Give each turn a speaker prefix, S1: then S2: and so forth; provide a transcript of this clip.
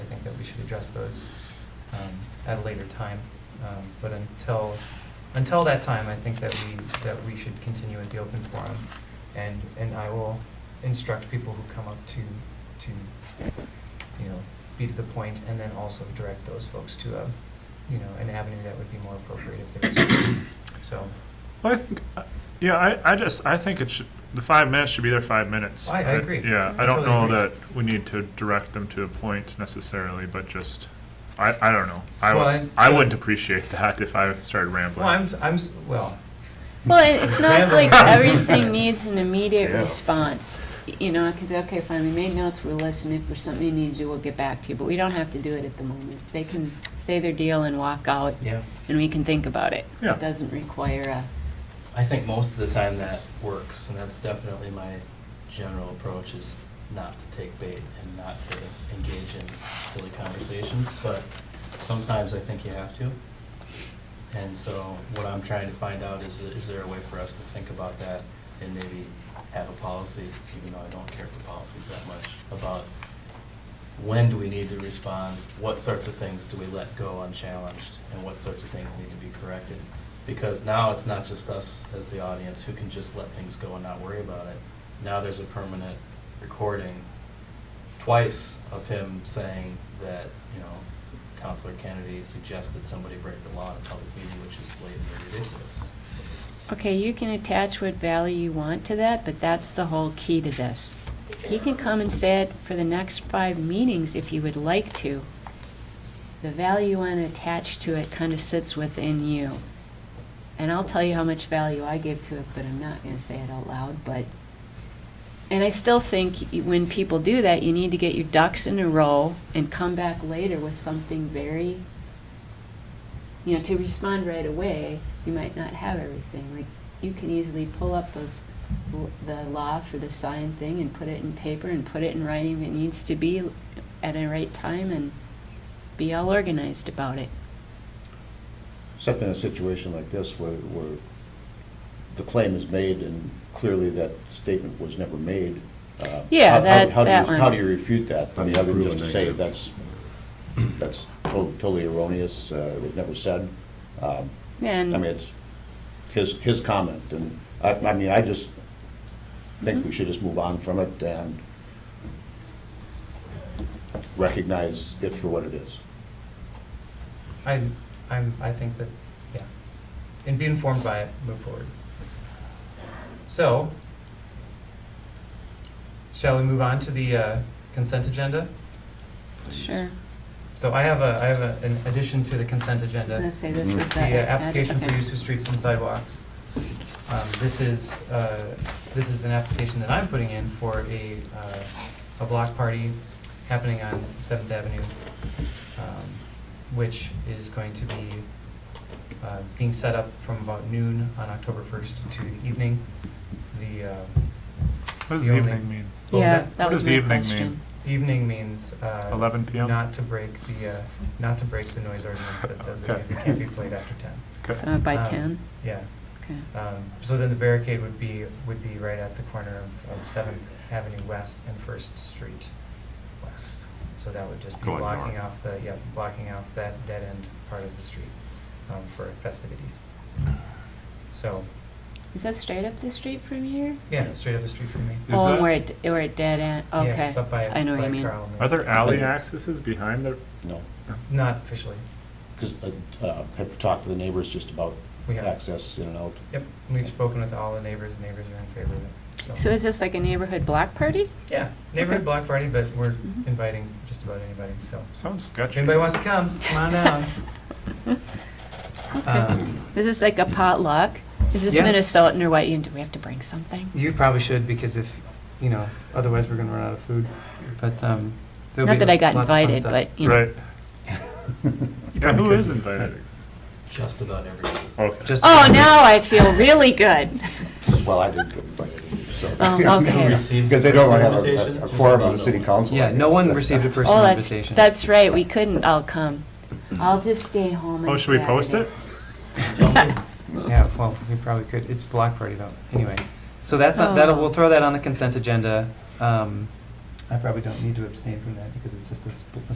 S1: we should address those um, at a later time. Um, But until, until that time, I think that we, that we should continue at the open forum. And, and I will instruct people who come up to, to, you know, be to the point and then also direct those folks to a, you know, an avenue that would be more appropriate if there is. one. So
S2: Well, I think, uh, yeah, I, I just, I think it should, the five minutes should be their five minutes.
S1: I- I agree.
S2: Yeah,
S1: I
S2: I don't know
S1: totally
S2: that we need to direct them to a point necessarily, but just, I, I don't know. I,
S1: Well,
S2: would-
S1: and
S2: I
S1: so-
S2: wouldn't appreciate that if I started rambling.
S1: Well, I'm, I'm, s- well,
S3: Well, it- it's not like everything needs an immediate
S2: Yeah.
S3: response. Y- You know, I could say, okay, fine, we made notes, we'll listen, if there's something you need to do, we'll get back to you, but we don't have to do it at the moment. They can say their deal and walk out,
S4: Yeah,
S3: and we can think about it.
S2: Yeah.
S3: It doesn't require a,
S4: I think most of the time that works, and that's definitely my general approach is not to take bait and not to engage in silly conversations, but sometimes I think you have to. And so what I'm trying to find out is, is there a way for us to think about that and maybe have a policy, even though I don't care for policies that much, about when do we need to respond? What sorts of things do we let go unchallenged? And what sorts of things need to be corrected? Because now it's not just us as the audience who can just let things go and not worry about it. Now there's a permanent recording twice of him saying that, you know, Counselor Kennedy suggested somebody break the law in a public meeting, which is blatantly ridiculous.
S3: okay, you can attach what value you want to that, but that's the whole key to this. He can come and say it for the next five meetings if he would like to. The value you want to attach to it kind of sits within you. And I'll tell you how much value I give to it, but I'm not going to say it out loud, but. And I still think y- when people do that, you need to get your ducks in a row and come back later with something very, you know, to respond right away, you might not have everything. Like, you can easily pull up those, l- the law for the sign thing and put it in paper and put it in writing if it needs to be at a right time and be all organized about it.
S5: Except in a situation like this where, where the claim is made and clearly that statement was never made. uh,
S3: Yeah,
S5: how- how-
S3: that-
S5: how do you-
S3: that one.
S5: How do you refute that? I mean, other than just to say
S6: Proven
S5: that's, that's to- totally erroneous, uh, it was never said. Um, I mean,
S3: And,
S5: it's his, his comment and, I, I mean, I just think
S3: Mm-hmm.
S5: we should just move on from it and recognize it for what it is.
S1: I'm, I'm, I think that, yeah, and be informed by it, move forward. So, shall we move on to the uh, consent agenda?
S3: sure.
S1: So I have a, I have a- an addition to the consent
S3: I was gonna
S1: agenda,
S3: say, this
S5: Mm-hmm.
S3: is
S1: the
S3: the.
S1: uh, application for
S3: okay.
S1: use of streets and sidewalks. Um, This is, uh, this is an application that I'm putting in for a, uh, a block party happening on Seventh Avenue, um, which is going to be uh, being set up from about noon on October 1st to the evening. The uh,
S2: What does
S1: the only-
S2: evening mean?
S1: What was
S3: Yeah,
S1: that?
S3: that
S2: What
S3: was
S2: does
S3: my
S2: evening mean?
S3: question.
S1: evening means uh,
S2: Eleven PM?
S1: not to break the, uh, not to break the noise ordinance that says that
S2: Okay.
S1: music can't be played after 10.
S2: Okay.
S3: So by
S1: Um,
S3: ten,
S1: Yeah.
S3: okay.
S1: Um, So then the barricade would be, would be right at the corner of- of Seventh Avenue West and First Street West. So that would just be
S2: Going
S1: blocking
S2: north.
S1: off the, yeah, blocking off that dead-end part of the street um, for festivities. So,
S3: Is that straight up the street from here?
S1: yeah, straight up the street from me.
S2: Is
S3: Oh,
S2: that-
S3: where it, where it dead end,
S1: Yeah,
S3: okay.
S1: it's up by-
S3: I know what
S1: by
S3: you mean.
S1: Carl and-
S2: Are there alley accesses behind the,
S5: No.
S1: Not officially.
S5: Because I've uh, talked to the neighbors just about
S1: We have-
S5: access in and out.
S1: Yep, we've spoken with all the neighbors, the neighbors are in favor of it, so.
S3: So is this like a neighborhood block party?
S1: Yeah, neighborhood
S3: Okay.
S1: block party, but we're
S3: Mhm.
S1: inviting just about anybody, so.
S2: sounds
S1: If
S2: sketchy.
S1: anybody wants to come, come on down. Um,
S3: Is this like a potluck? Is this
S1: Yeah.
S3: Minnesotan or what? You- Do we have to bring something?
S1: You probably should, because if, you know, otherwise we're gonna run out of food, but, um. there'll
S3: Not
S1: be
S3: that I got
S1: lots of fun
S3: invited,
S1: stuff.
S3: but, you know.
S2: Right. Yeah,
S1: probably
S2: who
S1: could.
S2: is invited?
S4: Just about everyone.
S2: Okay.
S1: Just-
S3: Oh, now I feel really good.
S5: Well, I didn't get invited either, so.
S3: Oh, okay.
S5: Because they don't have
S4: Invitation,
S5: a- a- a
S4: just
S5: quorum of
S4: about
S5: the city
S4: no one.
S5: council. I
S1: Yeah, no one
S5: guess.
S1: received a
S3: Oh,
S1: personal
S3: that's,
S1: invitation.
S3: that's right, we couldn't all come.
S5: Mm-hmm.
S3: I'll just stay home
S2: Oh,
S3: on
S2: should we post it?
S3: Saturday.
S1: Yeah, well, we probably could, it's block party though, anyway. So that's,
S3: Oh.
S1: not- that'll, we'll throw that on the consent agenda. Um, I probably don't need to abstain from that, because it's just a sp- a